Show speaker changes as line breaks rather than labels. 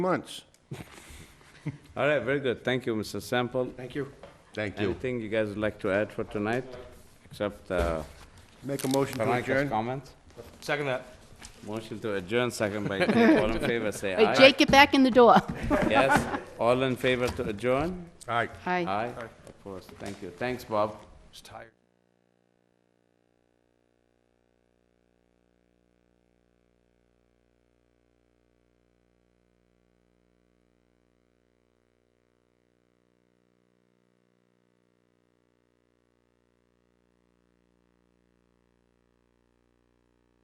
months.
All right, very good. Thank you, Mr. Sample.
Thank you.
Thank you.
Anything you guys would like to add for tonight, except uh,
Make a motion to
Veronica
adjourn.
comments?
Second that.
Motion to adjourn, second by Jake. All in favor, say
Hey,
aye.
Jake, get back in the door.
Yes, all in favor to adjourn?
Aye.
Aye.
Aye, of course. Thank you. Thanks, Bob.
Just tired.